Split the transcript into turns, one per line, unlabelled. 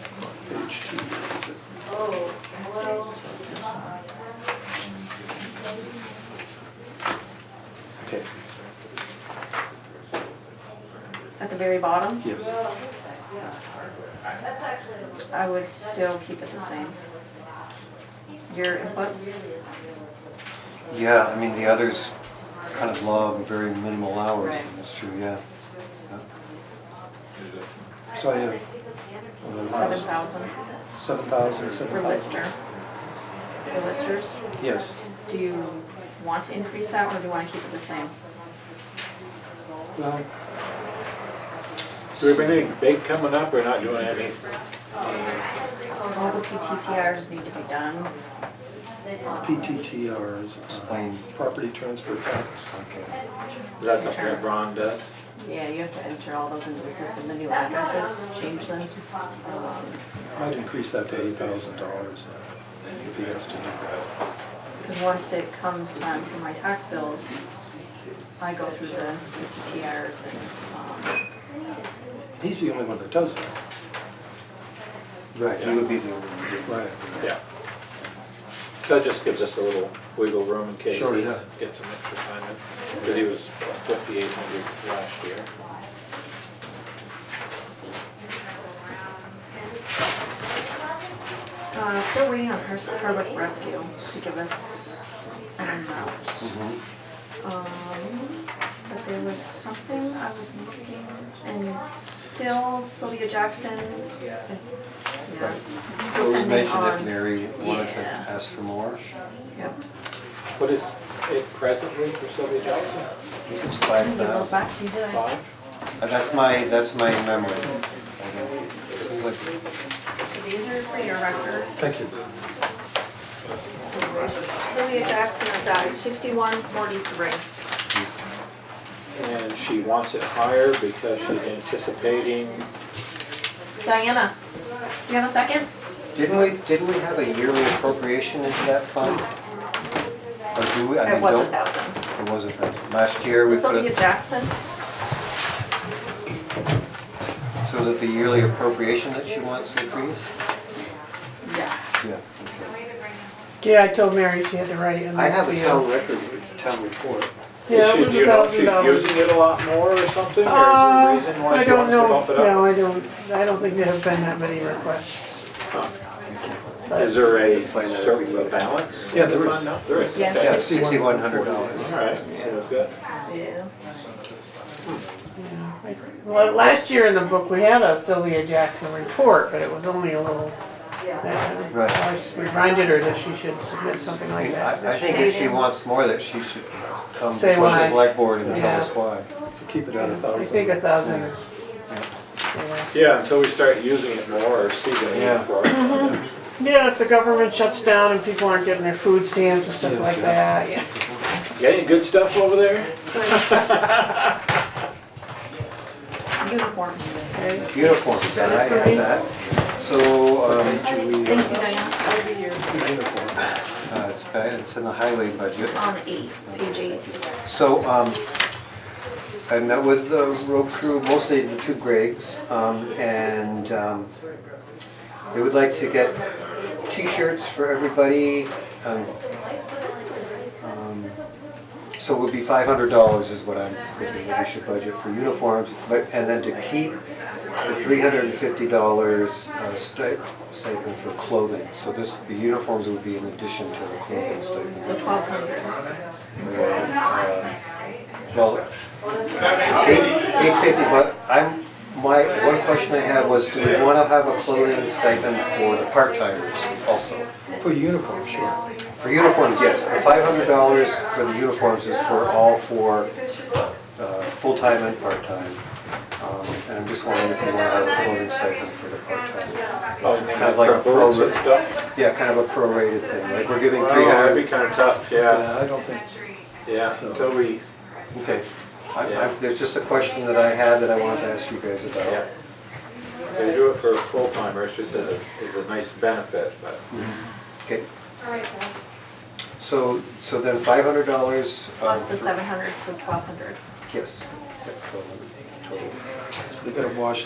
page two. is it?
Oh, well,
Okay,
At the very bottom,
yes.
I would still keep it the same. Your inputs,
Yeah, I mean, the others kind of log very minimal hours,
Right.
that's true, yeah. Yeah.
So I have, well, the
seven
last,
thousand
seven thousand, seven
for
thousand.
Lister. For listers,
Yes,
do you want to increase that or do you wanna keep it the same?
well,
Do we have anything big coming up or not doing any?
All the PTTRs need to be done.
PTTR is uh,
Explain.
property transfer tax.
Okay.
That's something that Ron does.
Yeah, you have to enter all those into the system, the new addresses, change them. Um,
Might increase that to eight thousand dollars then, if he has to do that.
Because once it comes time for my tax bills, I go through the PTTRs and, um,
And he's the only one that does that.
Right, you would be the only one. doing it.
Right.
Yeah. That just gives us a little wiggle room in case
Sure,
he
yeah.
gets some extra time in. Because he was fifty-eight hundred last year.
uh, still waiting on Hers- Hardwick Rescue to give us an amount.
Mhm.
Um, but there was something I was looking, and still Sylvia Jackson. Yeah.
It
Still
was
pending
mentioned that
on,
Mary wanted to
Yeah.
ask for more.
yep,
What is it presently for Sylvia Johnson?
It's
I
five
can give those
thousand.
back to you, did I?
Five?
Uh, That's my, that's my memory. I don't- it's like-
So these are for your records.
Thank you.
Sylvia Jackson is at sixty-one forty-three.
And she wants it higher because she's anticipating,
Diana, do you have a second?
Didn't we, didn't we have a yearly appropriation into that fund? Or do we, I
It
mean,
was a
don't-
thousand.
It was a thousand. Last year, we put
Sylvia
it,
Jackson,
so is it the yearly appropriation that she wants increased?
yes.
Yeah.
Yeah, I told Mary she had to write in.
I have
the-
a town record, town report.
Yeah,
is
it
she,
was
do you know, if she's
$1,000.
using it a lot more or something? Or is there a
Uh,
reason why
I
she
don't
wants to
know,
bump it up?
no, I don't, I don't think there have been that many requests.
Is there a
Find out if we
certain
need it.
balance?
Yeah,
in the
there
fund
is.
now? There is.
Yes.
okay.
Yeah, sixty-one hundred dollars.
All right, so we've got.
Yeah.
Well, last year in the book, we had a Sylvia Jackson report, but it was only a little. that-
Right.
I s- reminded her that she should submit something
I
like
mean,
that.
I, I think if she wants more, that she should come
Say
before the
why.
select board and tell
Yeah.
us why.
So keep it at a
I think
thousand.
a thousand is. yeah.
Yeah, until we start using it more or see the
Yeah.
need for it.
Yeah, if the government shuts down and people aren't getting their food stamps and stuff
Yes,
like
yeah.
that, yeah.
Got any good stuff over there?
Uniforms.
Okay.
Uniforms, and I have that. So, um,
Should we,
Thank
uh,
you, Diana. That would be your,
uniform?
uh, it's, ba- it's in the highway budget.
on eight, page eight.
So, um, I met with the road crew, mostly the two Gregs, um, and, um, they would like to get t-shirts for everybody, um, um, so it would be five hundred dollars is what I'm thinking that we should budget for uniforms, but, and then to keep the three hundred and fifty dollars, uh, stip- stipend for clothing, so this, the uniforms would be in addition to the clothing stipend.
So twelve hundred.
Uh, Well, eight fifty, but I'm, my, one question I had was, do we wanna have a clothing stipend for the part-timers also?
For uniform, sure.
For uniforms, yes, the five hundred dollars for the uniforms is for all four, uh, full-time and part-time. Um, And I'm just wondering if we wanna have a clothing stipend for the part-time.
Oh, you mean
Kind of like
for
a
boots
program.
and stuff?
Yeah, kind of a prorated thing, like we're giving three
Well, that'd
hundred,
be kind of tough, yeah,
Yeah, I don't think,
yeah,
So-
until we,
okay. I- I- There's just a question that I had that I wanted to ask you guys
yeah.
about.
They do it for full timers, just as a, as a nice benefit, but
Mm-hmm. Okay. So, so then five hundred dollars. um,
Plus the seven hundred, so twelve hundred.
Yes. Yep, 1,200 total.
so they gotta wash